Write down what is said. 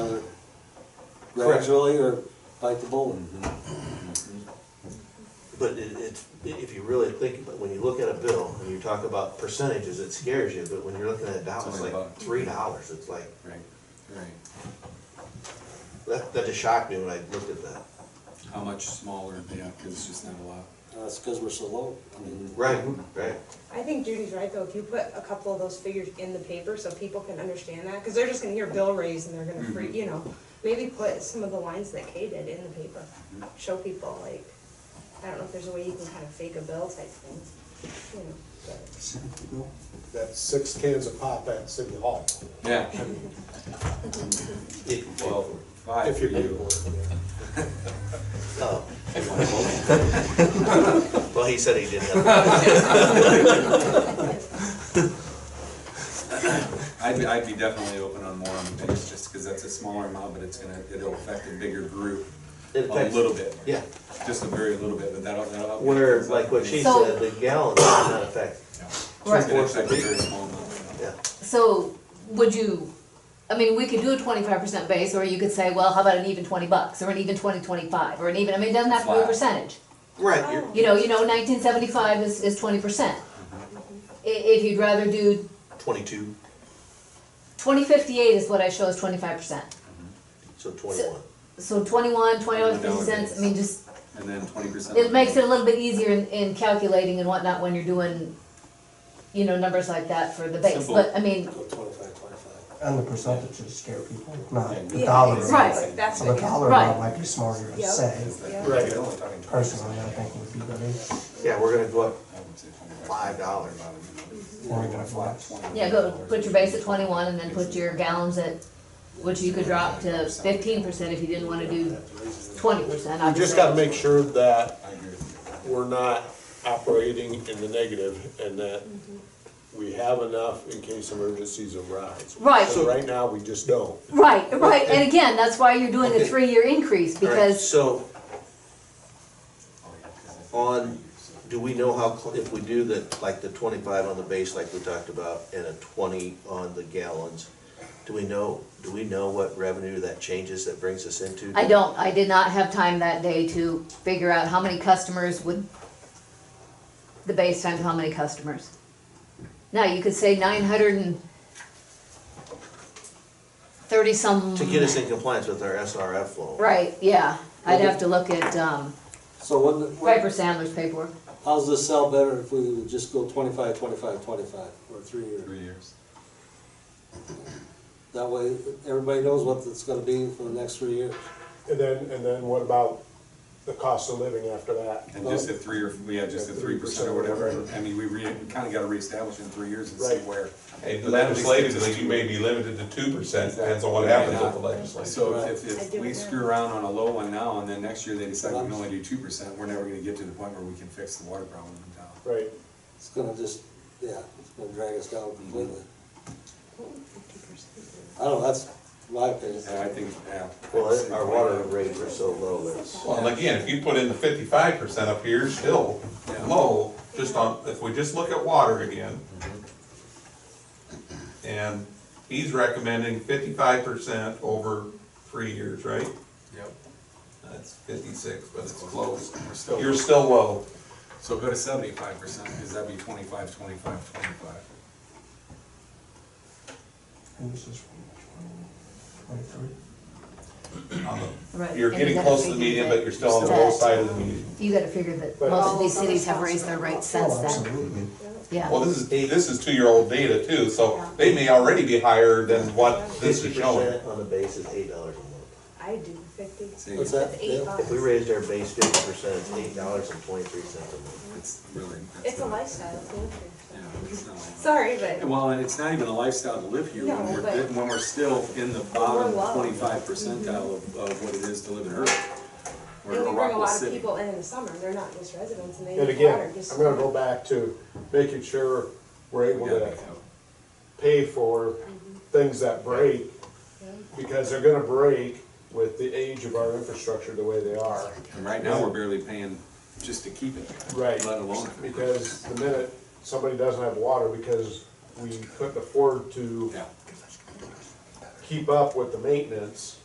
Correct. gradually or bite the bullet. But it, it's, if you really think, but when you look at a bill and you talk about percentages, it scares you, but when you're looking at dollars, only a like buck. three dollars, it's like, Right, right. that, that just shocked me when I looked at that. How much smaller, yeah, because it's just not a lot. That's because we're so low. I mean, Right, right. I think Judy's right, though, if you put a couple of those figures in the paper so people can understand that, because they're just gonna hear bill raise and they're gonna Mm-hmm. freak, you know, maybe put some of the lines that Kay did in the paper, Mm-hmm. show people, like, I don't know if there's a way you can kind of fake a bill type thing, you know, but. That's six cans of pop at City Hall, Yeah. It- Well, five if for you're paying for you. it. yeah. oh. Well, he said he didn't have. I'd, be- I'd be definitely open on more on the base, just because that's a smaller amount, but it's gonna, it'll affect a bigger group It a affects- little bit. Yeah, Just a very little bit, but that'll, that'll. where, like what she So- said, the gallon did not affect, It's gonna affect a very small amount. yeah. So would you, I mean, we could do a twenty-five percent base, or you could say, well, how about an even twenty bucks, or an even twenty twenty-five, or an even, I mean, it doesn't have to be a Flat. percentage. Right, you're, You know, you know, nineteen seventy-five is, is twenty percent. Mm-hmm. I- if you'd rather do, twenty-two, twenty fifty-eight is what I show as twenty-five percent. so twenty-one. So twenty-one, twenty-one fifty cents, I mean, just, And then twenty percent. it makes it a little bit easier in, in calculating and whatnot when you're doing, you know, numbers like that for the base, Simple. but I mean, go twenty-five, twenty-five. And the percentages scare people, not the Yeah, dollar amount. Right. That's So what, the yeah. dollar Right. amount might be smarter to Yep. say, Yeah. Right, you're only talking twenty percent. personally, I think would be better. Yeah, we're gonna go up I would say twenty-five. five dollars. Or We're gonna fly what's- twenty. Yeah, go, put your base at twenty-one and then put your gallons at, which you could drop to fifteen percent if you didn't wanna do twenty percent, We just gotta obviously. make sure that I agree with you. we're not operating in the negative and that we have enough in case emergencies arise. Right. So right now, we just don't. Right, right, and again, that's why you're doing a Okay. three-year increase, All right, because, So, on, do we know how, cl- if we do the, like the twenty-five on the base like we talked about, and a twenty on the gallons, do we know, do we know what revenue that changes that brings us into? I don't, I did not have time that day to figure out how many customers would, the base times how many customers. Now, you could say nine hundred and thirty-some. To get us in compliance with our SRF loan. Right, yeah, I'd have to look at, um, So when, Piper when, Sandler's paperwork. how's this sell better if we would just go twenty-five, twenty-five, twenty-five, or three years? Three years. That way, everybody knows what it's gonna be for the next three years. And then, and then what about the cost of living after that? And just at three or, yeah, just at three percent or whatever, I mean, we re, we kinda gotta reestablish in three years and see Right. where. And But that at least gives us legislatively, two- you may be limited to two percent, depends on what Exactly. happens with the Right. legislature. So if, I if do we it now. screw around on a low one now, and then next year they decide we can only do two percent, we're never gonna get to the point where we can fix the water problem in town. Right, It's gonna just, yeah, it's gonna drag us down completely. I don't know, that's my opinion. And I think, yeah. Well, our water rates are so low, that's, Well, and again, if you put in the fifty-five percent up here, still Yeah. low, just on, if we just look at water again. And he's recommending fifty-five percent over three years, right? Yep. That's fifty-six, but it's close. We're still- You're still low. So go to seventy-five percent, because that'd be twenty-five, twenty-five, twenty-five. And this is from twenty-three. Right, You're and getting you gotta close to the figure median, that- but you're still on the low that- side of the median. You gotta figure that But- most of these cities have raised their rates since Oh, then, absolutely. Well, yeah. this is, this is two-year-old data too, so they may already be higher than what this fifty is showing. percent on the base is eight dollars a month. I do fifty. See, What's that? It's eight Dale? bucks. If we raised our base fifty percent, it's eight dollars and twenty-three cents a month. It's really. It's a not- lifestyle, it's not fair. Yeah, it's not. Sorry, but Well, and it's not even a lifestyle to live here No, when we're, but- when we're still in the bottom We're low. twenty-five percentile of, of what it is to live in Earth. We're and a we bring a Rockwell lot of city. people in in the summer, they're not just residents and they and need again, water, just. I'm gonna go back to making sure we're able We gotta be to out. pay for things that break, because they're gonna break with the age of our infrastructure the way they are. And right now, we're barely paying just to keep it. Right. Let alone. Because the minute somebody doesn't have water, because we couldn't afford to Yeah. keep up with the maintenance,